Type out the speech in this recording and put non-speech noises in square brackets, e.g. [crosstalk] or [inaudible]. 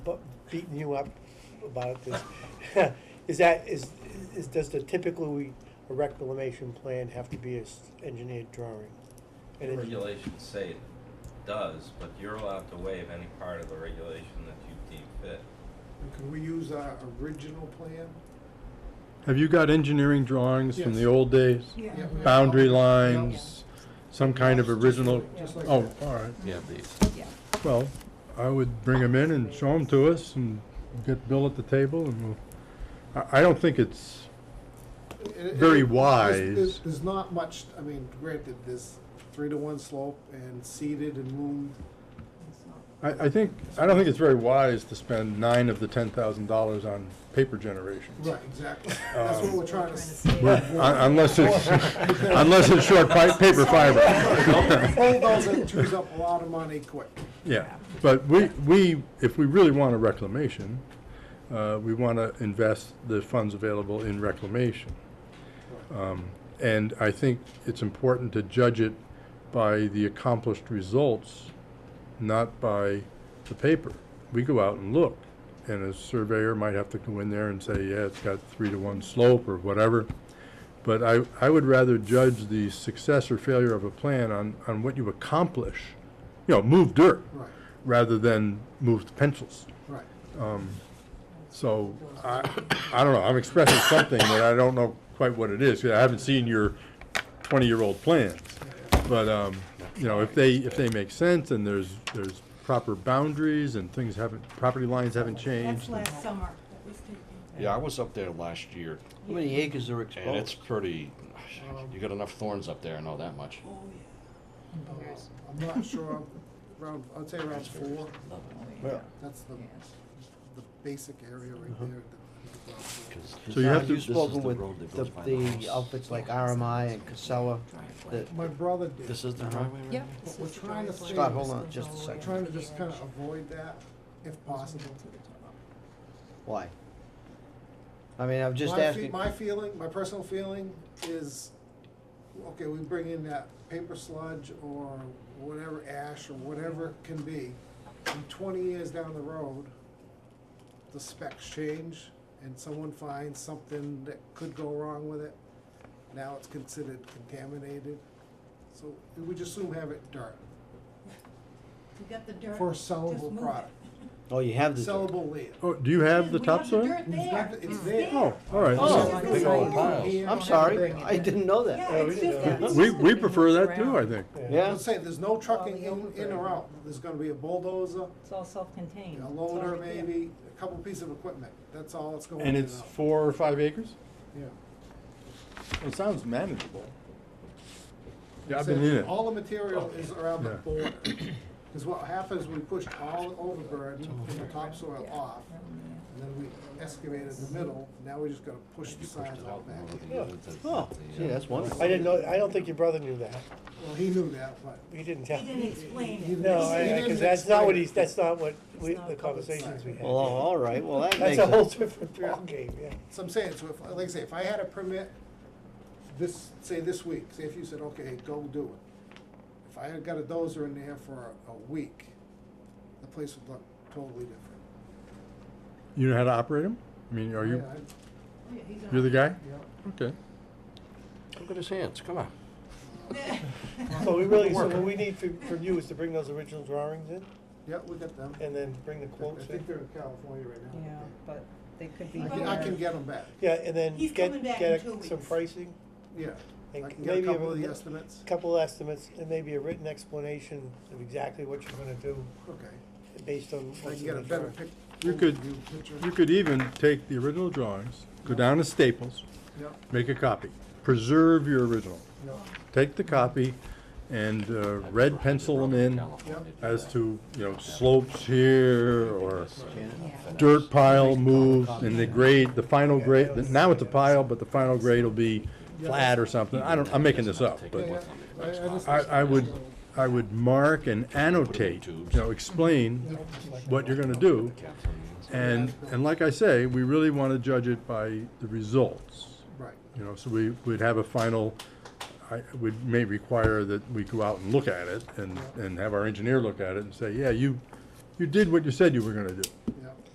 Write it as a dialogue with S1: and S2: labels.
S1: beating you up about this. [laughs] Is that, is, is, does the typically a reclamation plan have to be a s- engineered drawing?
S2: The
S1: An engi-
S2: regulations say it does, but you're allowed to waive any part of the regulation that you deem fit.
S3: Can we use our original plan?
S4: Have you got engineering drawings from the old days?
S5: Yeah.
S3: Yeah, we-
S4: Boundary lines, some kind of original,
S3: Just like
S4: oh,
S3: that.
S4: all right.
S6: You have these.
S5: Yeah.
S4: Well, I would bring them in and show them to us and get Bill at the table and we'll, I, I don't think it's,
S3: It- it-
S4: Very
S3: it- there's-
S4: wise.
S3: there's- There's not much, I mean, granted, there's three to one slope and seeded and loomed.
S4: I, I think, I don't think it's very wise to spend nine of the ten thousand dollars on paper generation.
S3: Right, exactly. [laughs] That's what
S4: Um,
S3: we're trying to. s-
S5: Trying to
S4: Well,
S5: save.
S4: un- Unless it's, unless it's short pi- paper fiber.
S3: [laughs] Bulldozer chews up a lot of money quick.
S4: Yeah, but we, we, if we really want a reclamation, uh, we want to invest the funds available in reclamation. Um, And I think it's important to judge it by the accomplished results, not by the paper. We go out and look, and a surveyor might have to go in there and say, yeah, it's got three to one slope or whatever. But I, I would rather judge the success or failure of a plan on, on what you accomplish, you know, move dirt,
S3: Right,
S4: rather than move pencils.
S3: right.
S4: Um, so, I, I don't know, I'm expressing something that I don't know quite what it is, 'cause I haven't seen your twenty-year-old plans. But, um, you know, if they, if they make sense and there's, there's proper boundaries and things haven't, property lines haven't
S5: That's
S4: changed.
S5: last summer. That was taken.
S6: Yeah, I was up there last year,
S7: How many acres are
S6: and it's
S7: exposed? Um,
S6: pretty, you got enough thorns up there, I know that much.
S3: Uh, I'm not
S5: [laughs]
S3: sure, around, I'd say around four.
S7: Well,
S3: That's the, the basic area right
S4: Uh-huh.
S3: there. that- that-
S6: 'Cause
S4: So you have
S7: Have
S4: to-
S7: you
S6: this is
S7: spoken
S6: the
S7: with
S6: road that
S7: the,
S6: goes by the house.
S7: the outfits like RMI and Casella? that- Uh-huh.
S3: My brother did.
S6: This is the driveway right
S5: Yep.
S6: here?
S3: But we're trying to stay.
S7: Scott, hold on just a
S3: We're
S7: second.
S3: trying to just kind of avoid that if possible.
S7: Why? I mean, I'm just
S3: my fe-
S7: asking,
S3: My feeling, my personal feeling is, okay, we bring in that paper sludge or whatever ash or whatever it can be. And twenty years down the road, the specs change and someone finds something that could go wrong with it. Now it's considered contaminated. So we just soon have it dirt
S5: We got the dirt.
S3: for a
S5: just
S3: sellable
S5: move it.
S3: product,
S7: oh, you have the, dirt.
S3: sellable land.
S4: Oh, do you have the
S5: We have
S4: topsoil?
S5: dirt there.
S3: It's
S5: It's
S3: there.
S5: there.
S4: Oh, all right.
S5: Oh.
S6: Big old
S3: Yeah.
S6: piles.
S7: I'm sorry, I didn't know
S5: Yeah,
S7: that.
S5: it's just that.
S4: We, we prefer that too, I think.
S7: Yeah,
S3: I'm saying, there's no trucking
S5: Well,
S3: in,
S5: the
S3: in or out, there's gonna be a bulldozer,
S5: It's all self-contained.
S3: a
S5: It's
S3: loader
S5: already there.
S3: maybe, a couple pieces of equipment, that's all that's going in
S4: And
S3: and
S4: it's
S3: out.
S4: four or five acres?
S3: Yeah.
S4: It sounds manageable. Yeah, I've
S3: So
S4: been in it.
S3: All the material is around the
S4: Yeah.
S3: border, cause what happens, we pushed all the overburden and the topsoil off, and then we excavated the middle, now we just gotta push the
S6: Pushed
S3: sides
S6: it
S3: out
S6: out
S3: back
S6: more than
S3: in.
S6: you
S1: Yeah.
S6: did the-
S7: oh,
S6: the,
S7: see,
S6: uh,
S7: that's wonderful.
S1: I didn't know, I don't think your brother knew that.
S3: Well, he knew that, but.
S1: He didn't
S5: He
S1: tell.
S5: didn't explain it.
S1: No, I, I-
S3: didn't
S1: cause that's not what
S3: explain it.
S1: he's, that's not what we,
S5: It's not
S1: the
S5: public
S1: conversations we
S3: site.
S1: had.
S7: Well, all right, well, that makes
S1: That's a whole
S7: sense.
S1: different ballgame, yeah.
S3: So I'm saying, so if, like I say, if I had a permit this, say this week, say if you said, okay, go do it. If I had got a dozer in there for a, a week, the place would look totally different.
S4: You know how to operate them? I mean, are you,
S3: Yeah, I-
S4: you're the guy?
S3: yeah.
S4: Okay.
S6: Look at his hands, come on.
S1: So we really, so
S6: Work.
S1: what we need from, from you is to bring those original drawings in
S3: Yeah, we got them.
S1: and then bring the
S3: I
S1: quotes in.
S3: think they're in California right
S8: Yeah,
S3: now.
S8: but they could be.
S3: I can, I
S8: better.
S3: can get them back,
S1: Yeah, and then
S5: He's
S1: get,
S5: coming back
S1: get
S5: in two
S1: some
S5: weeks.
S1: pricing,
S3: yeah.
S1: And
S3: I can get a
S1: maybe a
S3: couple of the
S1: little-
S3: estimates,
S1: a couple estimates, and maybe a written explanation of exactly what you're gonna do
S3: okay.
S1: based on.
S3: I
S1: what's
S3: can
S1: in
S3: get a
S1: the
S3: better
S1: drawing.
S3: pic.
S4: You could-
S3: overview picture.
S4: You could even take the original drawings, go down to Staples,
S3: Yeah,
S4: make a copy, preserve your original,
S3: yeah,
S4: take the copy and uh, red pencil them in
S6: California did
S4: as
S6: that.
S4: to, you know, slopes here or
S8: Yeah.
S4: dirt pile moves and the grade, the final grade, now it's a pile, but the final grade will be flat or something. I don't, I'm making this up,
S3: yeah,
S4: but
S3: yeah. I, I just.
S4: I, I would, I would mark and annotate, you know, explain what you're gonna do. And, and like I say, we really wanna judge it by the results,
S3: Right,
S4: you know, so we would have a final, I, would, may require that we go out and look at it and, and have our engineer look at it and say, yeah, you, you did what you said you were gonna do.
S3: yeah.